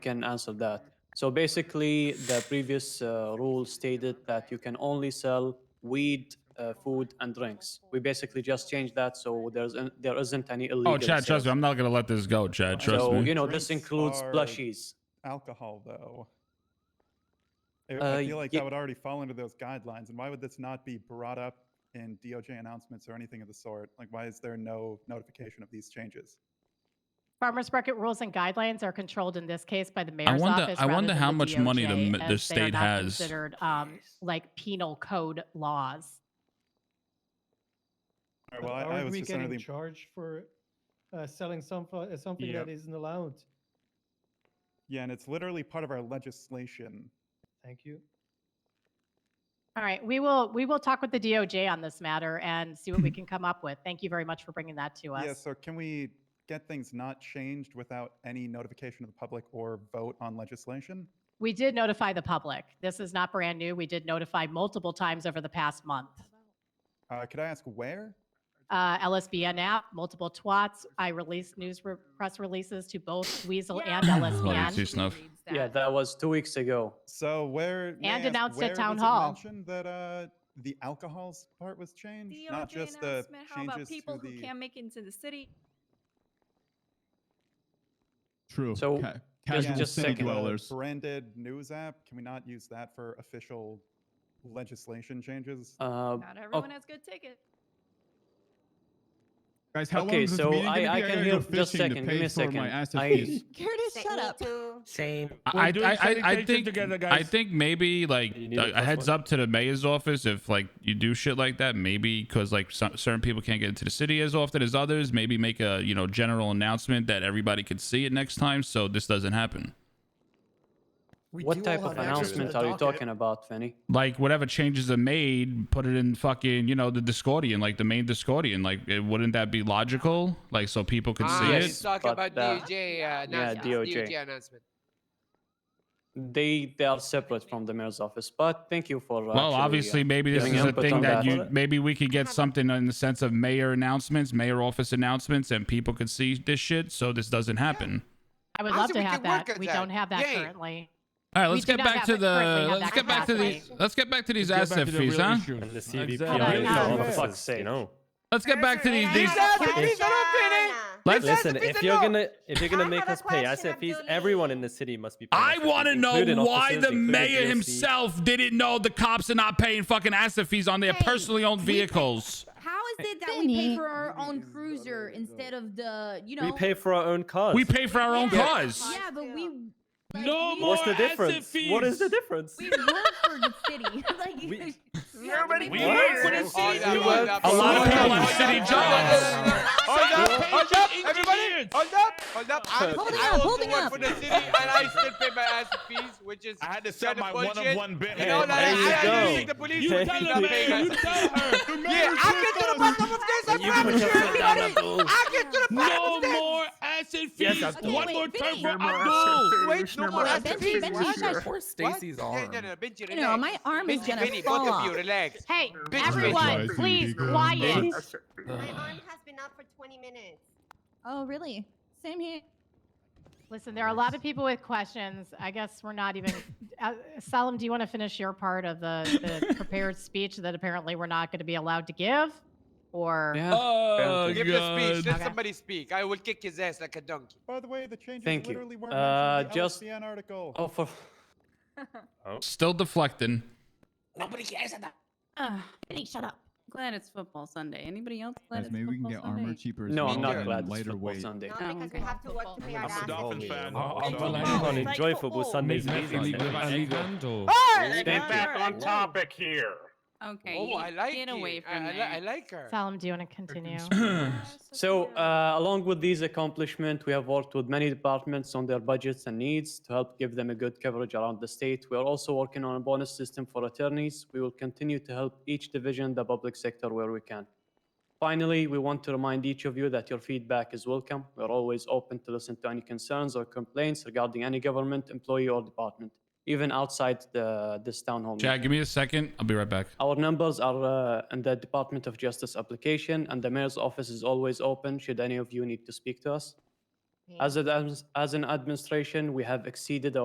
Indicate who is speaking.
Speaker 1: can answer that. So basically, the previous uh, rule stated that you can only sell weed, uh, food, and drinks. We basically just changed that, so there's an, there isn't any illegal.
Speaker 2: Oh, Chad,
Speaker 1: sales.
Speaker 2: trust me. I'm not gonna let this go, Chad. Trust
Speaker 1: so
Speaker 2: me.
Speaker 1: you know this
Speaker 3: Drinks
Speaker 1: includes
Speaker 3: are-
Speaker 1: plushies.
Speaker 3: alcohol though I-
Speaker 1: Uh,
Speaker 3: i feel like
Speaker 1: ye-
Speaker 3: that would already fall into those guidelines and why would this not be brought up in doj announcements or anything of the sort like why is there no notification of these changes
Speaker 4: Farmers market rules and guidelines are controlled in this case by the mayor's
Speaker 2: wonder-
Speaker 4: office.
Speaker 2: I
Speaker 4: rather
Speaker 2: wonder
Speaker 4: than
Speaker 2: how
Speaker 4: the
Speaker 2: much money the
Speaker 4: DOJ,
Speaker 2: m- the
Speaker 4: as they are
Speaker 2: state
Speaker 4: not
Speaker 2: has.
Speaker 4: considered um, like penal code laws.
Speaker 3: All right,
Speaker 5: But
Speaker 3: well I,
Speaker 5: Aren't
Speaker 3: I was
Speaker 5: we
Speaker 3: just
Speaker 5: getting
Speaker 3: under the
Speaker 5: charged for uh, selling some, uh, something
Speaker 3: Yep.
Speaker 5: that isn't allowed?
Speaker 3: yeah and it's literally part of our legislation
Speaker 5: Thank you.
Speaker 4: All right, we will we will talk with the DOJ on this matter and see what we can come up with. Thank you very much for bringing that to us.
Speaker 3: yeah so can we get things not changed without any notification of the public or vote on legislation
Speaker 4: We did notify the public. This is not brand new. We did notify multiple times over the past month.
Speaker 3: uh, could i ask where
Speaker 4: Uh, LSBN app, multiple twats. I released news re- press releases to both Weasel and
Speaker 2: Hold on,
Speaker 4: LSBN.
Speaker 2: see snuff.
Speaker 1: Yeah, that was two weeks ago.
Speaker 3: so where may I
Speaker 4: And
Speaker 3: ask
Speaker 4: announced at
Speaker 3: where
Speaker 4: town
Speaker 3: was it
Speaker 4: hall.
Speaker 3: mentioned that uh, the alcohols part was changed
Speaker 6: DOJ
Speaker 3: not just the
Speaker 6: announcement, How about
Speaker 3: changes
Speaker 6: people
Speaker 3: to the
Speaker 6: who can't make it into the city?
Speaker 7: True.
Speaker 1: So,
Speaker 7: Ca-
Speaker 1: just-
Speaker 7: casual
Speaker 1: just
Speaker 7: city
Speaker 1: second.
Speaker 3: the
Speaker 7: dwellers.
Speaker 3: branded news app. Can we not use that for official legislation changes?
Speaker 1: Uh,
Speaker 6: Not
Speaker 3: Oh.
Speaker 6: everyone has good tickets.
Speaker 7: Guys, how
Speaker 1: Okay,
Speaker 7: long is this
Speaker 1: so
Speaker 7: meeting
Speaker 1: I-
Speaker 7: gonna be?
Speaker 1: I can
Speaker 7: gotta
Speaker 1: hear-
Speaker 7: go
Speaker 1: just
Speaker 7: fishing to
Speaker 1: second, give
Speaker 7: pay
Speaker 1: me a
Speaker 7: for my
Speaker 1: second.
Speaker 7: asset
Speaker 1: I-
Speaker 7: fees.
Speaker 8: Curtis, shut up.
Speaker 9: Same.
Speaker 2: I,
Speaker 10: doing
Speaker 2: I, I, I
Speaker 10: sanitation
Speaker 2: think
Speaker 10: together,
Speaker 2: I
Speaker 10: guys.
Speaker 2: think maybe like
Speaker 10: You need
Speaker 2: a,
Speaker 10: a
Speaker 2: a heads
Speaker 10: plus one.
Speaker 2: up to the mayor's office if like you do shit like that maybe because like some, certain people can't get into the city as often as others maybe make a you know general announcement that everybody could see it next time so this doesn't happen
Speaker 8: We
Speaker 1: what
Speaker 8: do
Speaker 1: type
Speaker 8: all
Speaker 1: of
Speaker 8: have access to
Speaker 1: announcement
Speaker 8: the
Speaker 1: are you
Speaker 8: docket.
Speaker 1: talking about, Fanny?
Speaker 2: like whatever changes are made put it in fucking you know the discordian like the main discordian like it, wouldn't that be logical like so people could
Speaker 11: Ah,
Speaker 2: see
Speaker 1: yeah,
Speaker 2: it
Speaker 1: it's-
Speaker 11: He's talking
Speaker 1: but
Speaker 11: about
Speaker 1: the-
Speaker 11: DOJ uh,
Speaker 1: Yeah,
Speaker 11: announcement.
Speaker 1: DOJ.
Speaker 11: DOJ announcement.
Speaker 1: They they are separate from the mayor's office. But thank you for. Uh,
Speaker 2: Well,
Speaker 1: actually, uh,
Speaker 2: obviously, maybe this
Speaker 1: giving
Speaker 2: is a
Speaker 1: input
Speaker 2: thing
Speaker 1: on that.
Speaker 2: that you maybe we could get something in the sense of mayor announcements, mayor office announcements, and people could see this shit, so this doesn't happen.
Speaker 4: I would
Speaker 11: I
Speaker 4: love
Speaker 11: said
Speaker 4: to
Speaker 11: we
Speaker 4: have
Speaker 11: could work
Speaker 4: that.
Speaker 11: on
Speaker 4: We
Speaker 11: that.
Speaker 4: don't have that
Speaker 11: Yay.
Speaker 4: currently.
Speaker 2: All right,
Speaker 4: We
Speaker 2: let's
Speaker 4: do
Speaker 2: get
Speaker 4: not
Speaker 2: back
Speaker 4: have
Speaker 2: to
Speaker 4: it currently
Speaker 2: the
Speaker 4: on
Speaker 2: let's
Speaker 4: that
Speaker 2: get back to these
Speaker 4: capacity.
Speaker 2: let's get back to these
Speaker 10: Let's get back
Speaker 2: asset
Speaker 10: to the
Speaker 2: fees,
Speaker 10: real
Speaker 2: huh?
Speaker 10: issue.
Speaker 7: And the
Speaker 10: Exactly.
Speaker 7: CVP
Speaker 10: Yeah,
Speaker 7: is
Speaker 10: yeah,
Speaker 7: all
Speaker 10: yeah.
Speaker 7: for
Speaker 10: fuck's
Speaker 7: fuck's
Speaker 10: You
Speaker 7: sake.
Speaker 10: know.
Speaker 2: Let's get back to
Speaker 8: Cursor,
Speaker 2: these
Speaker 8: I
Speaker 2: these.
Speaker 8: have a
Speaker 11: These are
Speaker 8: question.
Speaker 2: Let's.
Speaker 10: Listen,
Speaker 11: fees
Speaker 10: if
Speaker 11: are
Speaker 10: you're
Speaker 11: low.
Speaker 10: gonna if you're gonna
Speaker 8: I
Speaker 10: make
Speaker 8: have a
Speaker 10: us pay asset
Speaker 8: question,
Speaker 10: fees,
Speaker 8: Abdul.
Speaker 10: everyone in the city must be. paying
Speaker 2: I
Speaker 10: asset
Speaker 2: want to
Speaker 10: fees,
Speaker 2: know
Speaker 10: including
Speaker 2: why
Speaker 10: officers,
Speaker 2: the
Speaker 10: including
Speaker 2: mayor
Speaker 10: DOC.
Speaker 2: himself didn't know the cops are not paying fucking asset fees on their
Speaker 8: Hey,
Speaker 2: personally owned
Speaker 8: we-
Speaker 2: vehicles.
Speaker 8: How is it that we pay
Speaker 9: Benny.
Speaker 8: for our own cruiser instead of the, you know?
Speaker 10: We pay for our own cars.
Speaker 2: We pay for our own
Speaker 8: Yeah,
Speaker 2: cars.
Speaker 8: Yeah, but we. like,
Speaker 2: No
Speaker 8: we-
Speaker 2: more
Speaker 10: What's the
Speaker 2: asset
Speaker 10: difference? What is the difference?
Speaker 8: We work for the city. like,
Speaker 10: We-
Speaker 8: you have to
Speaker 11: Nobody
Speaker 8: pay
Speaker 2: We work
Speaker 8: for
Speaker 2: for
Speaker 8: it.
Speaker 2: the
Speaker 11: Oh,
Speaker 2: city's
Speaker 11: yeah,
Speaker 2: doing.
Speaker 11: well, that's-
Speaker 2: A lot of people have
Speaker 11: Oh,
Speaker 2: city jobs.
Speaker 11: yeah, yeah, yeah, yeah. Hold up, hold up, everybody, hold up, hold up. I'm,
Speaker 8: Holding
Speaker 11: I
Speaker 8: up,
Speaker 11: also
Speaker 8: holding
Speaker 11: work
Speaker 8: up.
Speaker 11: for the city and I still pay my ass fees, which is
Speaker 10: I had to
Speaker 11: sell
Speaker 10: sell
Speaker 11: Kinda
Speaker 10: my
Speaker 11: my bullshit. one-of-one
Speaker 10: one-of-one
Speaker 11: you
Speaker 10: Bentley.
Speaker 11: know that
Speaker 10: There
Speaker 11: I, I, I
Speaker 10: you
Speaker 11: think the
Speaker 10: go.
Speaker 11: police
Speaker 10: You
Speaker 11: should
Speaker 10: tell
Speaker 11: be
Speaker 10: her,
Speaker 11: not
Speaker 10: man,
Speaker 11: paying
Speaker 10: you
Speaker 11: us.
Speaker 10: tell her.
Speaker 11: Yeah, I get to the bottom of this. I promise you. I get to the bottom of this.
Speaker 2: asset
Speaker 10: Yes,
Speaker 2: fees.
Speaker 10: Abdul.
Speaker 8: Okay, wait, Vinny.
Speaker 11: Wait, no more
Speaker 8: Wait,
Speaker 11: ass
Speaker 8: Benji,
Speaker 11: fees.
Speaker 8: Benji,
Speaker 11: What?
Speaker 8: you
Speaker 9: Where's
Speaker 8: guys-
Speaker 11: What?
Speaker 9: Stacy's
Speaker 11: Yeah,
Speaker 9: arm?
Speaker 11: No, no, Benji,
Speaker 8: You know,
Speaker 11: relax.
Speaker 8: my arm is
Speaker 11: Benji,
Speaker 8: gonna
Speaker 11: Benji,
Speaker 8: fall
Speaker 11: both of you,
Speaker 8: off.
Speaker 11: relax.
Speaker 4: Hey,
Speaker 11: Bitch,
Speaker 4: everyone,
Speaker 7: bitch.
Speaker 4: please,
Speaker 7: Bitch.
Speaker 4: quiet.
Speaker 8: Oh, really? Same here.
Speaker 4: Listen, there are a lot of people with questions. I guess we're not even. Uh, Salim, do you want to finish your part of the, the prepared speech that apparently we're not going to be allowed to give? Or
Speaker 1: Yeah.
Speaker 2: Oh,
Speaker 11: Give the speech. Let
Speaker 4: Okay.
Speaker 11: somebody speak. I will kick his ass like a donkey.
Speaker 3: By the way, the changes
Speaker 1: Thank you.
Speaker 3: literally weren't
Speaker 1: Uh,
Speaker 3: mentioned in the
Speaker 1: just-
Speaker 3: LSBN article.
Speaker 1: Oh, for
Speaker 2: Still deflecting.
Speaker 10: Oh,
Speaker 8: Ugh, Vinny, shut up. Glad it's football Sunday. Anybody else?
Speaker 7: Guys, maybe we can get armor cheaper. as
Speaker 1: no, I'm
Speaker 7: well
Speaker 1: not
Speaker 7: and
Speaker 1: glad it's
Speaker 7: Lighter
Speaker 1: football
Speaker 7: weight.
Speaker 1: Sunday.
Speaker 8: because we have to work to pay our
Speaker 10: I'm a Dolphins fan.
Speaker 9: Oh,
Speaker 10: so-
Speaker 9: Abdul, I
Speaker 8: Wow,
Speaker 9: can't
Speaker 8: it's like
Speaker 9: enjoy football
Speaker 8: football.
Speaker 9: Sundays. these days.
Speaker 1: Thank you.
Speaker 9: on topic here.
Speaker 8: Okay.
Speaker 11: Oh, I like it. I, I, li- I like her.
Speaker 4: Salim, do you want to continue?
Speaker 1: So, uh, along with these accomplishments, we have worked with many departments on their budgets and needs to help give them a good coverage around the state. We are also working on a bonus system for attorneys. We will continue to help each division, the public sector, where we can. Finally, we want to remind each of you that your feedback is welcome. We are always open to listen to any concerns or complaints regarding any government, employee, or department, even outside the, this town hall. meeting.
Speaker 2: Chad, give me a second. I'll be right back.
Speaker 1: Our numbers are uh, in the Department of Justice application, and the mayor's office is always open should any of you need to speak to us. As, a, as an administration, we have exceeded our